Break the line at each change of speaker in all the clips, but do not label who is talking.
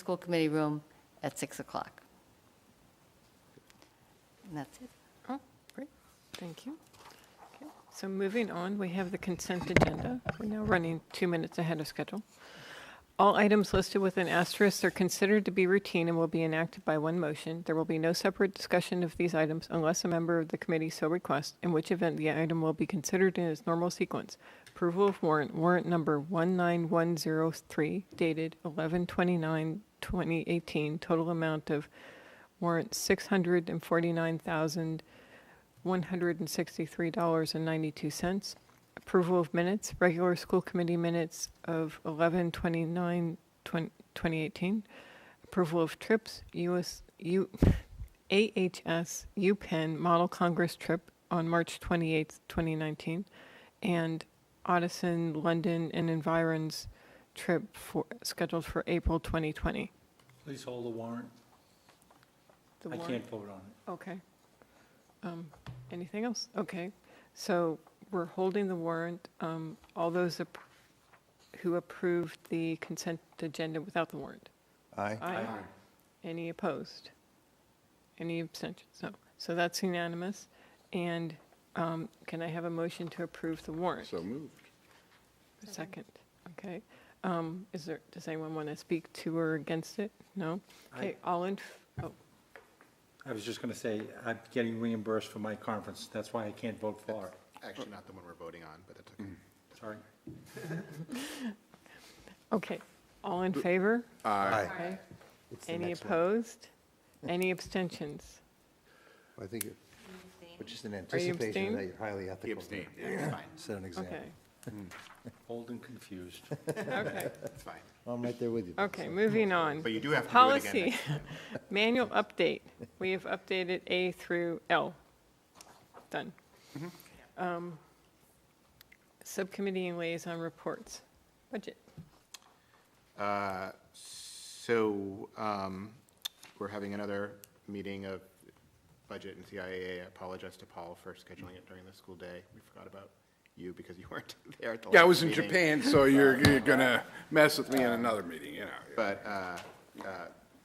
school committee room at 6 o'clock. And that's it.
Oh, great, thank you. Okay, So moving on, we have the consent agenda. We're now running two minutes ahead of schedule. All items listed with an asterisk are considered to be routine and will be enacted by one motion. There will be no separate discussion of these items unless a member of the committee so requests, in which event the item will be considered in its normal sequence. Approval of warrant, warrant number 19103 dated 11/29/2018, total amount of warrant $649,163.92. Approval of minutes, regular school committee minutes of 11/29/2018. Approval of trips, US, U, AHS, UPenn Model Congress trip on March 28th, 2019, and Odison, London, and Environs trip for, scheduled for April 2020.
Please hold the warrant.
The
I
warrant-
can't vote on it.
Okay. Um, Anything else? Okay, so we're holding the warrant. Um, All those ap- who approved the consent agenda without the warrant?
Aye.
Any opposed? Any abstentions? No. So that's unanimous. And um, can I have a motion to approve the warrant?
So moved.
Second, okay. Um, Is there, does anyone want to speak to or against it? No?
I-
Okay, all in, f- oh,
I was just going to say, I'm getting reimbursed for my conference. That's why I can't vote for it.
Actually, not the one we're voting on, but that's okay.
Mm.
Sorry.
okay, all in favor?
Aye.
Aye. Any opposed? Any abstentions?
I think, it- which is an
you
anticipation that
abstaining?
you're highly ethical.
He abstained, yeah, it's fine,
Set an example.
Okay,
Old and confused.
okay,
it's fine.
I'm right there with you.
okay, moving on.
But you do have to do it again.
Policy, manual update. We have updated A through L. Done.
Mm-hmm.
Um, Subcommittee and liaison reports. Budget.
Uh, So um, we're having another meeting of budget and CIA. I apologize to Paul for scheduling it during the school day. We forgot about you because you weren't there at the last meeting.
Yeah, I was in Japan, so you're, you're gonna mess with me in another meeting, you know.
But, uh, uh,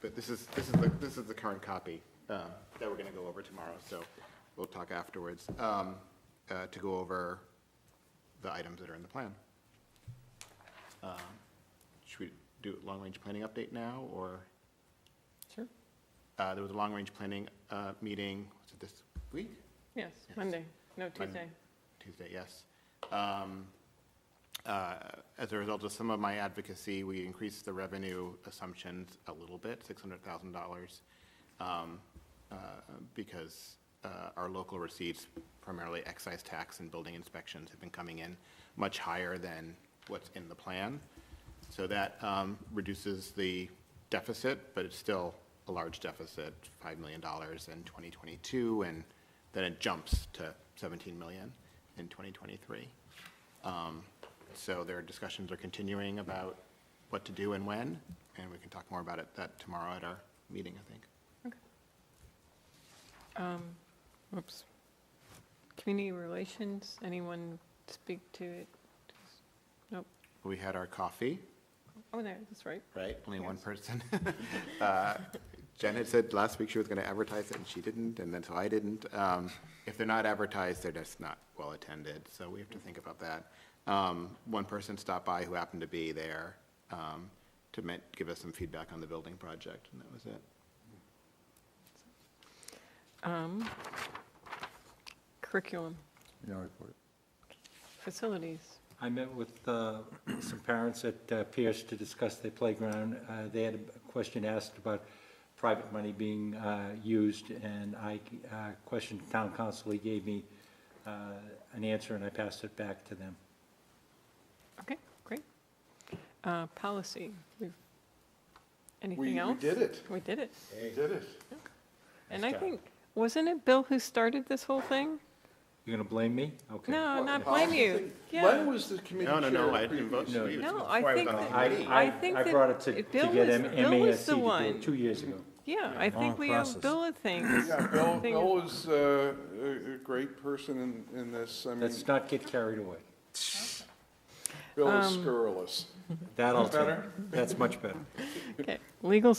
but this is, this is, the this is the current copy um, that we're going to go over tomorrow, so we'll talk afterwards um, uh, to go over the items that are in the plan. Um, Should we do long-range planning update now, or,
Sure.
uh, there was a long-range planning uh, meeting, was it this week?
Yes, Monday, no, Oh, Tuesday.
Tuesday, yes. Um, uh, As a result of some of my advocacy, we increased the revenue assumptions a little bit, $600,000, um, uh, because uh, our local receipts, primarily excise tax and building inspections, have been coming in much higher than what's in the plan. So that um, reduces the deficit, but it's still a large deficit, $5 million in 2022, and then it jumps to 17 million in 2023. Um, So their discussions are continuing about what to do and when, and we can talk more about it that tomorrow at our meeting, I think.
Whoops. Community relations, anyone speak to it? Nope.
We had our coffee,
Oh, there, that's right.
right? Only one person. Uh, Jen had said last week she was going to advertise it, and she didn't, and then so I didn't. Um, If they're not advertised, they're just not well-attended, so we have to think about that. Um, One person stopped by who happened to be there um, to ma- give us some feedback on the building project, and that was it.
Um, Curriculum,
No report.
facilities.
I met with uh, some parents at uh, Pierce to discuss their playground. Uh, They had a question asked about private money being uh, used, and I uh, questioned town council. He gave me uh, an answer, and I passed it back to them.
Okay, great. Uh, Policy, we've,
We,
anything
we
else?
did it,
We did it.
we did it.
And I
job.
think, wasn't it Bill who started this whole thing?
You're going to blame me? Okay.
No,
What,
not
policy
blame you.
thing? Len
Yeah.
was the committee
No,
chair.
no, no, I didn't vote
previously.
for you.
No,
It's
I
before
think
was on the
that-
committee.
I think
I
that
brought it to to
Bill
get
was-
M-
Bill was
MASC
the
to do
one.
it two years ago.
Yeah, I think
long
we owe
process.
Bill a thing.
Yeah, Bill,
Thing
Bill
is-
was uh, a, a great person in, in this, I mean,
Let's not get carried away.
Bill is scurrilous.
Um,
That'll,
Better?
that's much better.
Okay, legal